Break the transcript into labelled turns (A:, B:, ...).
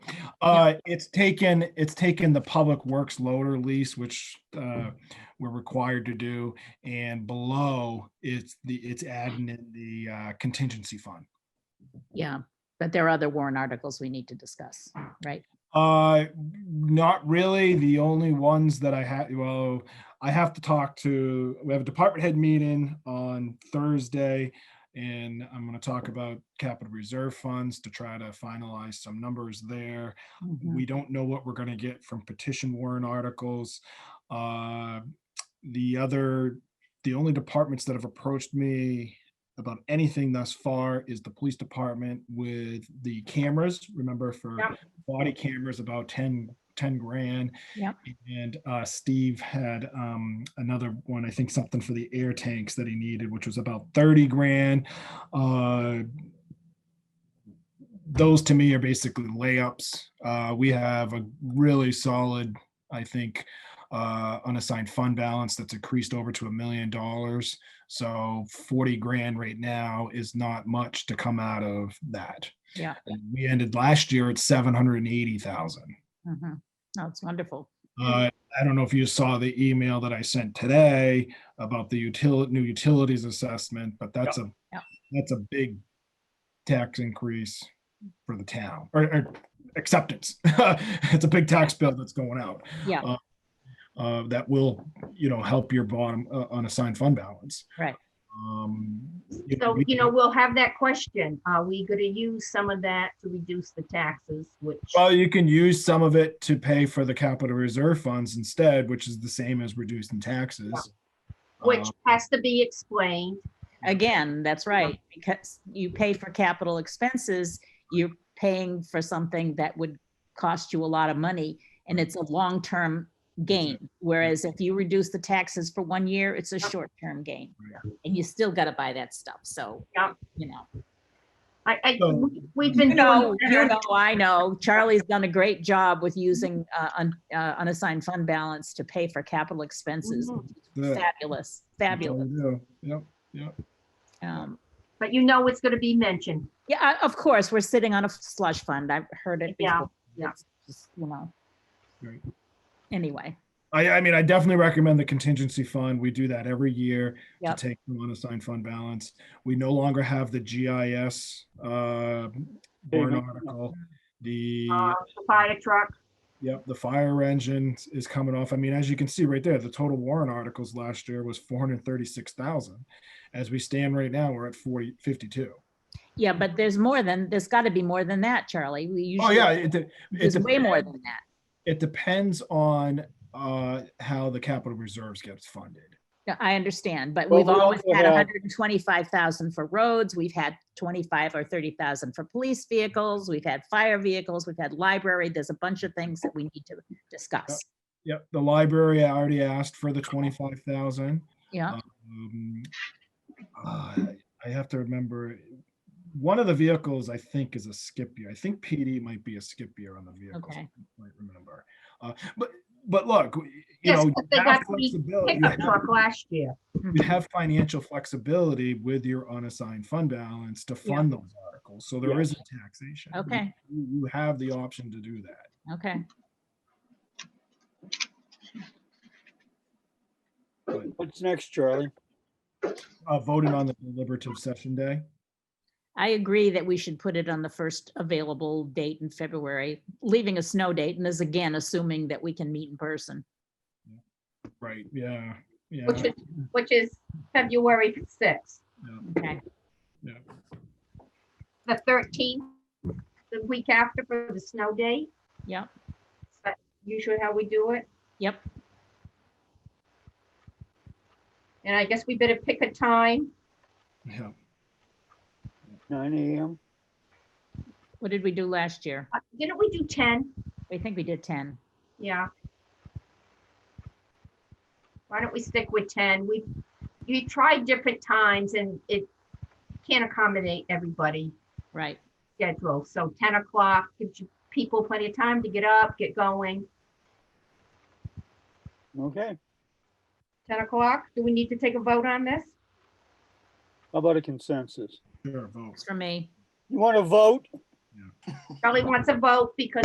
A: Uh, it's taken, it's taken the public works loader lease, which, uh, we're required to do. And below, it's the, it's adding in the uh, contingency fund.
B: Yeah, but there are other warrant articles we need to discuss, right?
A: Uh, not really. The only ones that I had, well, I have to talk to, we have a department head meeting on Thursday. And I'm gonna talk about capital reserve funds to try to finalize some numbers there.
B: Mhm.
A: We don't know what we're gonna get from petition warrant articles. Uh, The other, the only departments that have approached me about anything thus far is the police department with the cameras. Remember for
B: Yep.
A: body cameras, about 10 10 grand.
B: Yep.
A: And uh, Steve had um, another one, I think something for the air tanks that he needed, which was about 30 grand. Uh, those to me are basically layups. Uh, we have a really solid, I think, uh, unassigned fund balance that's increased over to a million dollars. So 40 grand right now is not much to come out of that.
B: Yeah.
A: And We ended last year at 780,000.
B: Mhm. No, it's wonderful.
A: Uh, I don't know if you saw the email that I sent today about the utility, new utilities assessment, but that's a,
B: Yeah.
A: that's a big tax increase for the town, or, or acceptance. It's a big tax bill that's going out,
B: Yeah,
A: uh, that will, you know, help your bottom, uh, unassigned fund balance.
B: Right.
A: Um.
C: So,
A: we-
C: you know, we'll have that question. Are we gonna use some of that to reduce the taxes, which,
A: Well, you can use some of it to pay for the capital reserve funds instead, which is the same as reducing taxes.
C: which
A: Um,
C: has to be explained?
B: again, that's right, because you pay for capital expenses, you're paying for something that would cost you a lot of money, and it's a long-term gain. Whereas if you reduce the taxes for one year, it's a short-term gain. And you still gotta buy that stuff, so,
C: Yeah.
B: you know.
C: I, I,
A: So-
C: we- we've
B: You
C: been
B: know,
C: doing.
B: you know, I know. Charlie's done a great job with
C: Mm-hmm.
B: using uh, un- uh, unassigned fund balance to pay for capital expenses.
C: Mhm.
A: the-
B: Fabulous, fabulous.
A: Yep. Mm-hmm.
B: Um,
C: But you know it's gonna be mentioned.
B: Yeah, I- of course, we're sitting on a slush fund. I've heard it.
C: Yeah,
B: before.
C: yeah.
B: It's just, You know.
A: Right.
B: Anyway,
A: I, I mean, I definitely recommend the contingency fund. We do that every year to
B: Yep.
A: take the unassigned fund balance. We no longer have the GIS, uh, warrant article. The,
B: Uh-huh.
C: Uh, the fire truck,
A: yep, the fire engine is coming off. I mean, as you can see right there, the total warrant articles last year was four hundred thirty-six thousand. As we stand right now, we're at forty, fifty-two.
B: yeah, but there's more than, there's got to be more than that, Charlie. We
A: Oh,
B: usually,
A: yeah, it, it-
B: There's
A: it
B: way more
A: depends-
B: than that.
A: It depends on, uh, how the capital reserves gets funded.
B: Yeah, I understand, but
D: Well,
B: we've
D: we
B: always
D: also
B: had
D: have-
B: hundred and twenty-five thousand for roads, we've had twenty-five or thirty thousand for police vehicles, we've had fire vehicles, we've had library, there's a bunch of things that we need to discuss.
A: Yep, the library, I already asked for the twenty-five thousand.
B: Yeah,
A: Um, uh, I have to remember, one of the vehicles I think is a skip year. I think PD might be a skip year on the vehicles.
B: Okay.
A: I might remember. Uh, but, but look, w- you
C: Yes,
A: know,
C: but they
A: you have
C: got the
A: flexibility, you
C: pickup
A: have-
C: truck last year.
B: hmm,
A: you have financial flexibility with your unassigned fund balance to
B: Yeah.
A: fund those articles. So there
D: Yeah.
A: isn't taxation. You-
B: Okay.
A: You you have the option to do that.
B: okay.
D: What's next, Charlie?
A: Uh, voted on the deliberative session day.
B: I agree that we should put it on the first available date in February, leaving a snow date, and is again assuming that we can meet in person.
A: Right, yeah, yeah.
C: Which is, which is February sixth,
B: Okay,
C: the thirteenth, the week after for the snow day.
B: Yep.
C: Is that Usually how we do it.
B: yep,
C: And I guess we better pick a time.
A: Yeah.
D: Nine AM?
B: what did we do last year?
C: Uh, Didn't we do ten?
B: I think we did ten.
C: Yeah. Why don't we stick with ten? We, you tried different times and it can't accommodate everybody
B: Right,
C: schedule. So ten o'clock gives you people plenty of time to get up, get going.
D: Okay.
C: Ten o'clock, do we need to take a vote on this?
D: How about a consensus?
A: Sure, vote.
B: it's for me.
D: You want to vote?
C: Charlie wants a vote because